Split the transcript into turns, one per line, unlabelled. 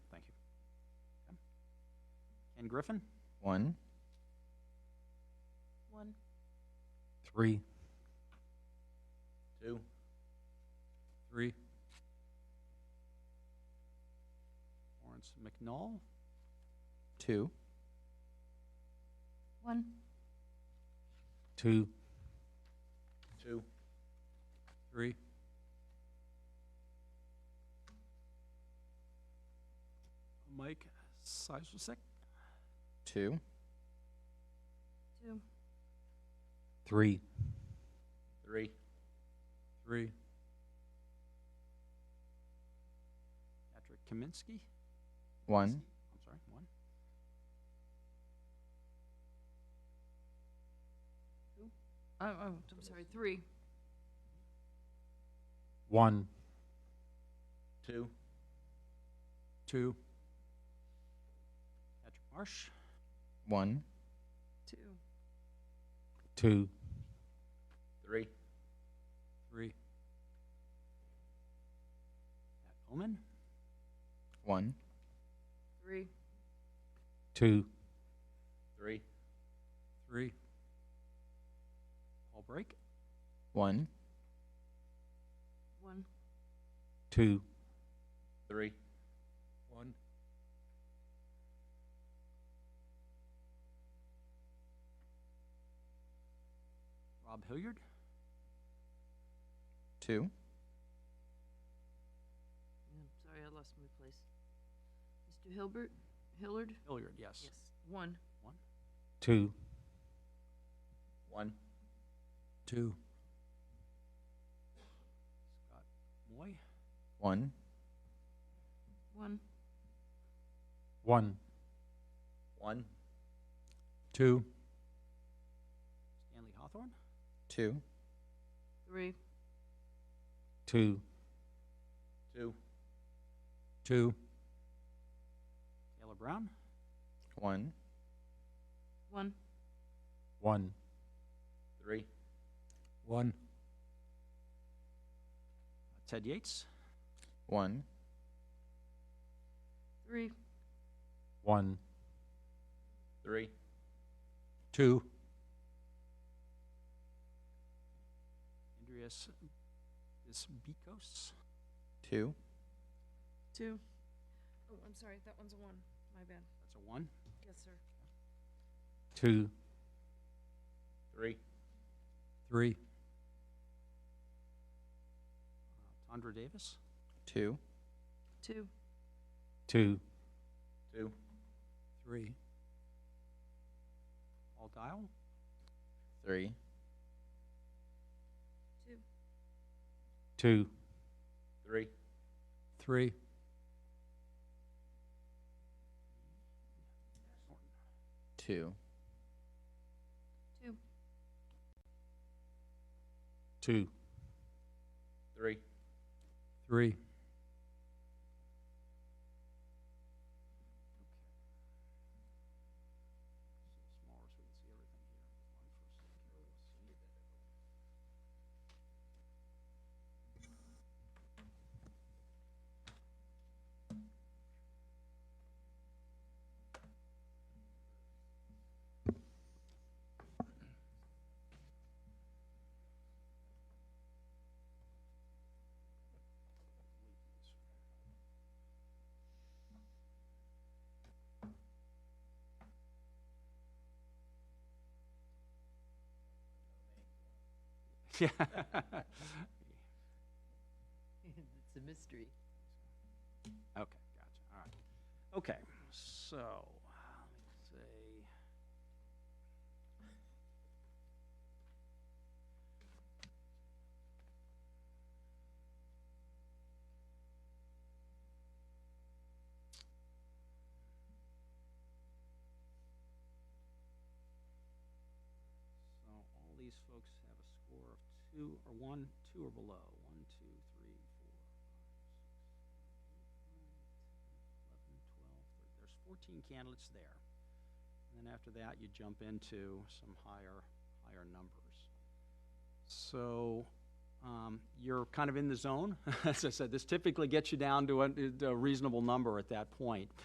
and Griffin.
One,
One.
Three.
two,
Three.
Lawrence McNall,
two,
One.
Two.
two,
Three.
Mike Seiswick,
two,
Two.
Three.
three,
Three.
Patrick Kaminsky.
one,
I'm sorry, one.
Oh, oh, I'm sorry, three.
One.
two,
Two.
Patrick Marsh,
one,
Two.
Two.
three,
Three.
Pat Omen,
one,
Three.
Two.
three,
Three.
Paul Brake,
one,
One.
Two.
three,
One.
Rob Hilliard,
two,
Yeah, Sorry, I lost my place. Mr. Hilbert, Hillard?
Hilliard, yes.
One.
Two.
one,
Two.
Scott Moy,
one,
One.
One.
one,
Two.
Stanley Hawthorne,
two,
Three.
Two.
two,
Two.
Taylor Brown,
one,
One.
One.
three,
One.
Ted Yates,
one,
Three.
One.
three,
Two.
Andreas Bisbikos,
two,
Two. Oh, I'm sorry, that one's a one. My bad.
that's a one.
Yes, sir.
Two.
three,
Three.
Uh, Tondra Davis,
two,
Two.
Two.
two,
Three.
Paul Dial,
three,
Two.
Two.
three,
Three.
two,
Two.
Two.
three,
Three.
so smaller so we can see everything here. Yeah.
It's a mystery.
Okay, gotcha, all right. Okay, so, let's see. So all these folks have a score of two or one, two or below. One, two, three, four, five, six, seven, eight, nine, 10, 11, 12, 13. There's 14 candidates there. And then after that, you jump into some higher, higher numbers. So um, you're kind of in the zone. As I said, this typically gets you down to a- a reasonable number at that point.